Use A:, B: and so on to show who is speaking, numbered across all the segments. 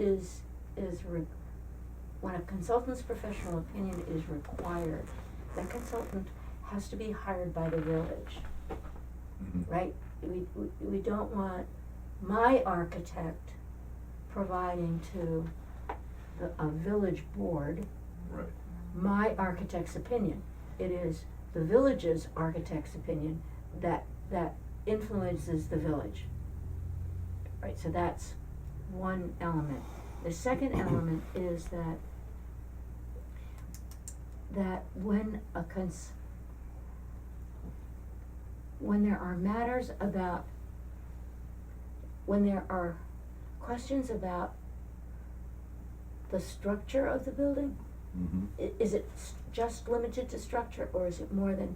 A: is, is re- when a consultant's professional opinion is required, that consultant has to be hired by the village,
B: Mhm.
A: right? We, we, we don't want my architect providing to the, a village board
B: Right,
A: my architect's opinion. It is the village's architect's opinion that, that influences the village. Right, so that's one element. The second element is that, that when a cons, when there are matters about, when there are questions about the structure of the building,
B: mm-hmm,
A: i- is it s- just limited to structure or is it more than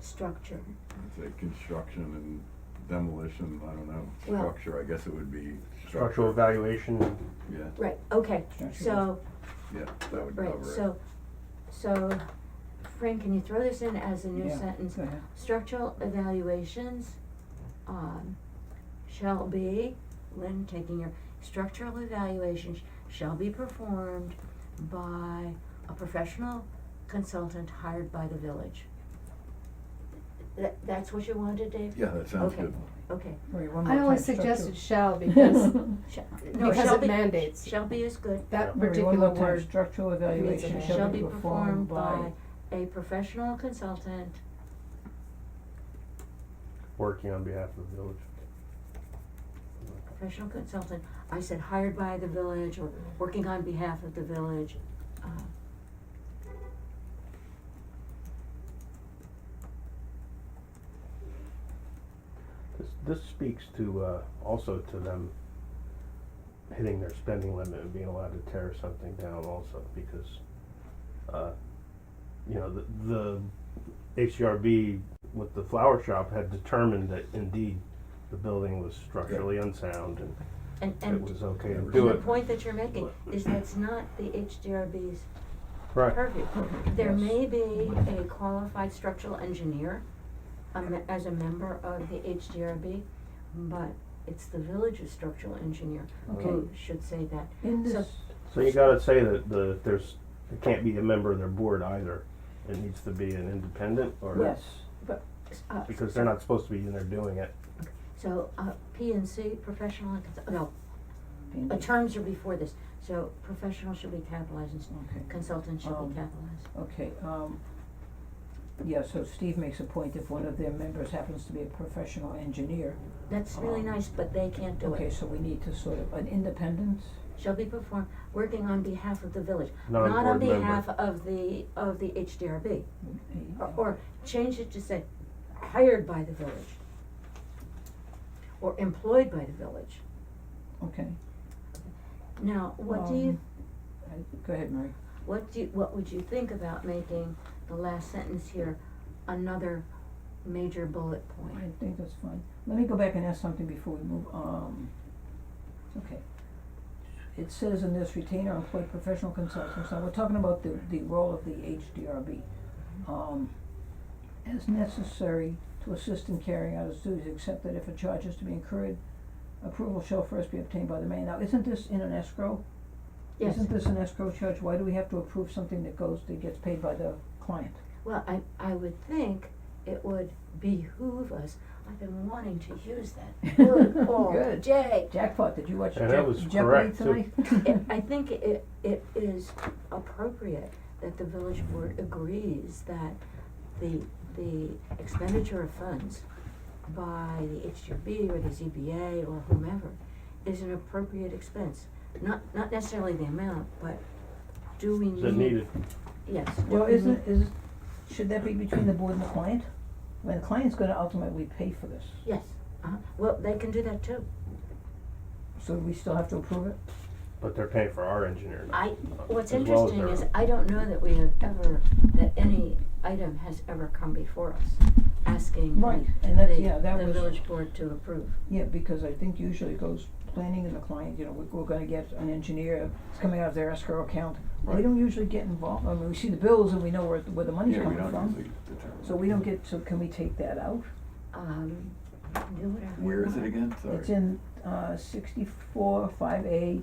A: structure?
B: I'd say construction and demolition, I don't know,
A: Well-
B: structure, I guess it would be
C: structural
B: structure,
C: evaluation,
B: yeah,
A: Right, okay,
D: Structure.
A: so,
B: yeah, that would cover it.
A: right, so, so, Frank, can you throw this in as a new
D: Yeah,
A: sentence?
D: go ahead.
A: Structural evaluations, um, shall be, Lynn taking your, structural evaluations shall be performed by a professional consultant hired by the village. That, that's what you wanted, Dave?
B: Yeah, that sounds
A: Okay.
B: good.
A: Okay.
D: Wait, one more
E: I only
D: time, structure.
E: suggested shall because
A: Sh- no,
E: because
A: shall
E: it
A: be-
E: mandates.
A: Shall be is good.
E: That
D: Wait, one more
E: particular
D: time.
E: word,
D: Structural evaluation
E: mandates.
D: shall be performed by.
A: a professional consultant
C: working on behalf of the village.
A: professional consultant, I said hired by the village or working on behalf of the village. uh,
C: This, this speaks to, uh, also to them hitting their spending limit and being allowed to tear something down also, because, uh, you know, the, the HCRB with the flower shop had determined that indeed the building was structurally unsound and
A: And,
C: it
A: and
C: was okay to
B: And
C: do
A: the
C: it.
A: point that you're making is that's not the HDRB's
C: Right,
A: purview. There
D: Yes.
A: may be a qualified structural engineer a me- as a member of the HDRB, but it's the village's structural engineer who should say that.
D: In
A: So-
D: this,
C: so you gotta say that the, there's, it can't be a member of their board either. It needs to be an independent or.
D: yes,
A: Uh,
C: Because they're not supposed to be in there doing it.
A: So, uh, P and C, professional and consult, no,
D: in
A: uh,
D: this-
A: terms are before this, so professional should be capitalized and
D: okay.
A: consultant should
D: Um,
A: be capitalized.
D: Okay, um, yeah, so Steve makes a point if one of their members happens to be a professional engineer.
A: That's really
D: um,
A: nice, but they can't do
D: Okay,
A: it.
D: so we need to sort of, an independent,
A: Shall be performed, working on behalf of the village,
C: Not a
A: not on
C: board member.
A: behalf of the, of the HDRB.
D: a-
A: Or, or change it to say hired by the village. Or employed by the village.
D: okay.
A: Now, what do you,
D: um, I- Go ahead, Mary.
A: what do, you- what would you think about making the last sentence here another major bullet point?
D: I think that's fine. Let me go back and ask something before we move, um, okay. It says in this retain or employ professional consultants, now we're talking about the, the role of the HDRB. Um, as necessary to assist in carrying out its duties, except that if a charge is to be incurred, approval shall first be obtained by the mayor. Now, isn't this in an escrow?
A: Yes.
D: Isn't this an escrow charge? Why do we have to approve something that goes, that gets paid by the client?
A: Well, I, I would think it would behoove us, I've been wanting to use that word all
D: Good.
A: day.
D: Jackpot, did you watch
C: And
D: Jeopardy
C: that
D: tonight?
C: was correct, too.
A: It, I think it, it is appropriate that the village board agrees that the, the expenditure of funds by the HGB or the ZBA or whomever is an appropriate expense. Not, not necessarily the amount, but do we need?
C: Is it needed?
A: Yes. do
D: Well,
A: we
D: isn't,
A: need-
D: is, should that be between the board and the client? I mean, the client's gonna ultimately pay for this,
A: Yes, uh-huh, well, they can do that too.
D: so we still have to approve it?
C: But they're paying for our engineer now.
A: I, what's
C: as well as
A: interesting
C: their
A: is,
C: own.
A: I don't know that we have ever, that any item has ever come before us, asking the,
D: Right, and that's,
A: the-
D: yeah, that
A: the
D: was-
A: village board to approve.
D: Yeah, because I think usually it goes planning and the client, you know, we're, we're gonna get an engineer, it's coming out of their escrow account. We
B: Right.
D: don't usually get involved, I mean, we see the bills and we know where, the- where the money's
B: Yeah, we
D: coming
B: don't
D: from,
B: usually determine.
D: so we don't get, so can we take that out?
A: Um, do whatever. you
B: Where is it
A: want.
B: again, sorry?
D: It's in, uh, sixty-four, five A,